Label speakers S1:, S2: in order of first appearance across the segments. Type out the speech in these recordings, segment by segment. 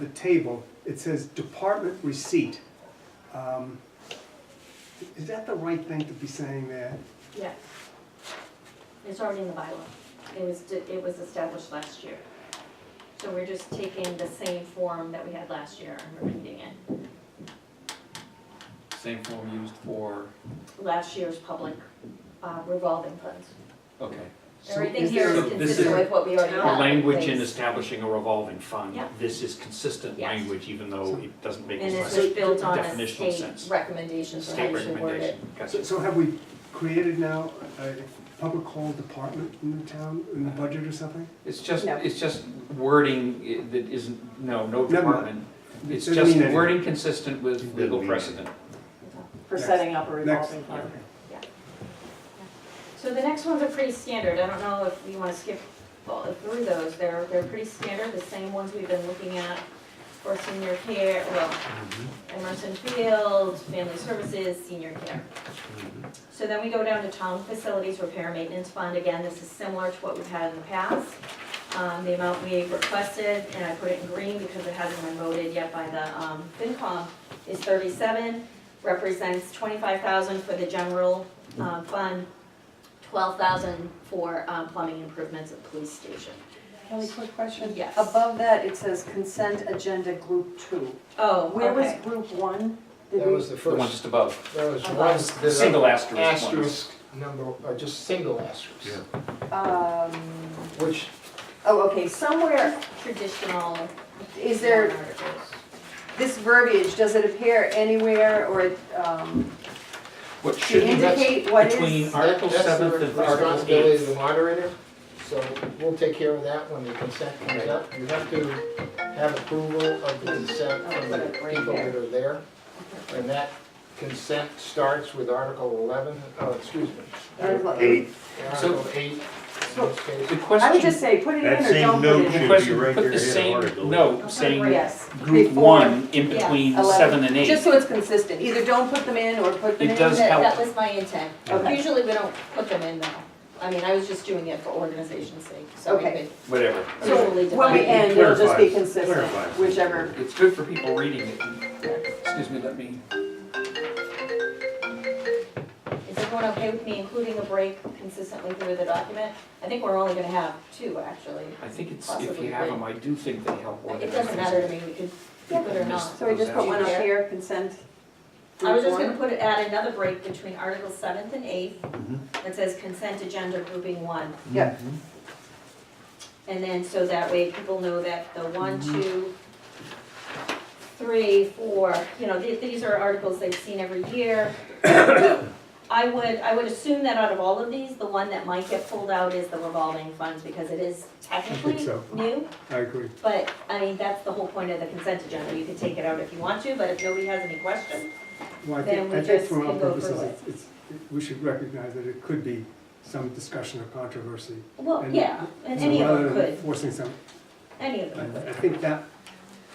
S1: the table, it says department receipt. Um, Is that the right thing to be saying there?
S2: Yeah. It's already in the bylaw. It was, it was established last year. So we're just taking the same form that we had last year and amending it.
S3: Same form used for,
S2: Last year's public uh, revolving funds.
S3: okay.
S1: So
S2: Everything
S1: is
S2: here
S1: there-
S2: is
S3: So this is
S2: consistent with what we already
S4: The
S2: have. in
S4: language in
S2: place.
S4: establishing a revolving fund,
S2: Yeah.
S4: this is consistent
S2: Yes.
S4: language, even though it doesn't make
S2: And
S4: as
S2: this
S4: much
S2: was built on a
S4: definitional
S2: state
S4: sense.
S2: recommendation for how
S4: state
S2: you should word it.
S4: recommendation. Gotcha.
S1: So, so have we created now a public hall department in the town, in the budget or something?
S3: It's just,
S2: No.
S3: it's just wording i- that isn't, no, no
S1: Never mind.
S3: department. It's
S1: Doesn't mean
S3: just
S1: anything.
S3: wording consistent with legal precedent.
S5: for
S1: Next.
S5: setting up a
S1: Next.
S5: revolving fund.
S2: So the next ones are pretty standard, I don't know if you wanna skip all- through those, they're, they're pretty standard, the same ones we've been looking at for senior care, well, Emerson Field, Family Services, Senior Care.
S1: Mm-hmm.
S2: So then we go down to town facilities repair maintenance fund, again, this is similar to what we've had in the past. Um, the amount we requested, and I put it in green because it hasn't been voted yet by the, um, FinCom, is thirty-seven, represents twenty-five thousand for the general, um, fund, twelve thousand for um, plumbing improvements at police station.
S5: Kelly, quick question?
S2: Yes.
S5: Above that, it says consent agenda group two.
S2: Oh,
S5: Where was group one? Did
S6: That
S5: we-
S6: was the
S3: The one
S6: first,
S3: just above,
S6: that was
S5: Okay.
S6: one, there's a
S4: Single asterisk one.
S6: asterisk number, uh, just single asterisk.
S5: Um,
S6: Which,
S5: oh, okay, somewhere,
S2: Traditional.
S5: is there,
S2: articles.
S5: this verbiage, does it appear anywhere or, um,
S4: What
S5: to
S4: should be,
S6: that's
S5: indicate what
S4: between
S5: is?
S4: Article
S6: that's the
S4: 7th and Article
S6: responsibility of
S4: 8th.
S6: the moderator, so we'll take care of that when the consent comes up. You have to have approval of the consent from the
S5: Right
S6: people
S5: there.
S6: that are there. And that consent starts with Article 11, oh, excuse me.
S5: Article
S7: Eight,
S4: So-
S6: Article 8, in this
S4: The
S6: case.
S5: I would just
S4: question,
S5: say, put it in
S7: that
S5: or
S7: same
S5: don't
S7: note
S5: put
S7: should
S5: it
S7: be
S4: question,
S5: in.
S7: right there.
S4: put the
S7: in
S4: same
S7: Article.
S4: note
S2: Okay,
S4: saying
S5: Yes.
S4: group
S5: before
S4: one in
S2: yeah,
S4: between
S5: 11.
S4: seven and eight.
S5: Just so it's consistent, either don't put them in or put them
S4: It
S5: in.
S4: does
S5: that-
S4: help.
S2: That was my intent.
S5: Okay.
S2: Usually we don't put them in though. I mean, I was just doing it for organization's sake, so we
S5: Okay.
S2: could
S4: Whatever.
S2: totally
S5: When we
S2: divide.
S5: end, it'll just be
S7: Clarifies-
S5: consistent,
S7: clarifies.
S5: whichever.
S4: It's good for people reading it. Excuse me, let me.
S2: Is everyone okay with me including a break consistently through the document? I think we're only gonna have two, actually.
S4: I think it's, if you have them, I do think they help.
S2: It doesn't matter to me, we could keep it or not.
S5: So we just put one up
S2: Yeah.
S5: here, consent.
S2: I was just
S5: group
S2: gonna put, it- add another break between Article seventh and eighth that says consent agenda grouping one.
S5: one. Yep.
S1: Mm-hmm.
S2: And then, so that way people know that the one,
S1: Mm-hmm.
S2: two, three, four, you know, th- these are articles they've seen every year. I would, I would assume that out of all of these, the one that might get pulled out is the revolving funds, because it is technically
S1: so.
S2: new.
S1: I agree.
S2: But, I mean, that's the whole point of the consent agenda, you can take it out if you want to, but if nobody has any questions,
S1: Well, I
S2: Then
S1: think,
S2: we
S1: I think
S2: just
S1: for all
S2: can go
S1: purposes,
S2: through it.
S1: it's, it's- we should recognize that it could be some discussion or controversy.
S2: well,
S1: And-
S2: yeah, and
S1: So
S2: any of them
S1: Rather than
S2: could,
S1: forcing some,
S2: any of
S1: I,
S2: them.
S1: I think that,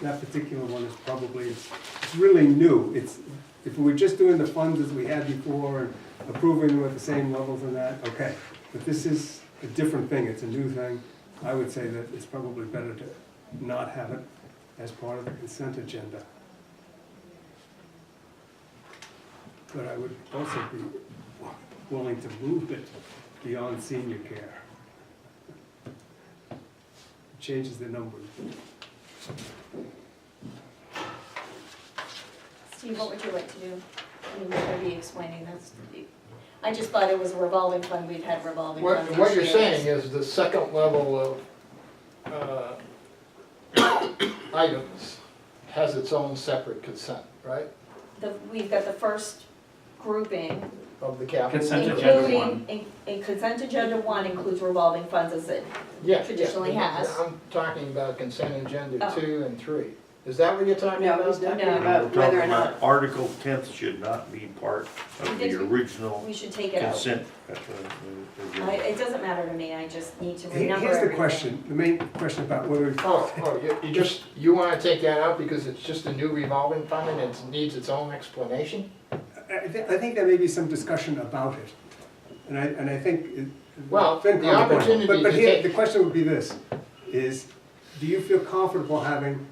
S1: that particular one is probably, it's really new. It's, if we were just doing the funds as we had before and approving them at the same levels and that, okay. But this is a different thing, it's a new thing. I would say that it's probably better to not have it as part of the consent agenda. But I would also be willing to move it beyond senior care. Changes the numbers.
S2: Steve, what would you like to do? I mean, we're gonna be explaining this. I just thought it was a revolving fund, we've had revolving
S6: What,
S2: funds.
S6: what
S2: each
S6: you're
S2: year.
S6: saying is the second level of, uh, items has its own separate consent, right?
S2: The, we've got the first grouping,
S6: Of the capital.
S4: Consent agenda one.
S2: including, in- in consent agenda one includes revolving funds as it.
S6: Yeah, yeah.
S2: Traditionally has.
S6: I'm talking about consent agenda
S2: Oh.
S6: two and three. Is that what you're talking
S5: No, he's
S6: about?
S5: talking
S2: No.
S7: We're
S5: about
S7: talking
S5: whether or not,
S7: about Article tenth should not be part of
S2: Did
S7: the
S2: we-
S7: original
S2: We should take it out.
S7: consent. uh, uh,
S2: I, it doesn't matter to me, I just need to
S1: Here-
S2: renumber
S1: Here's the
S2: everything.
S1: question, the main question about whether, we-
S6: Oh, oh, you, you just, you wanna take that out because it's just a new revolving fund and it needs its own explanation?
S1: I, I thi- I think there may be some discussion about it. And I, and I think. it-
S6: Well, the
S1: FinCom would-
S6: opportunity
S1: But, but
S6: to
S1: here,
S6: take-
S1: the question would be this, is, do you feel comfortable having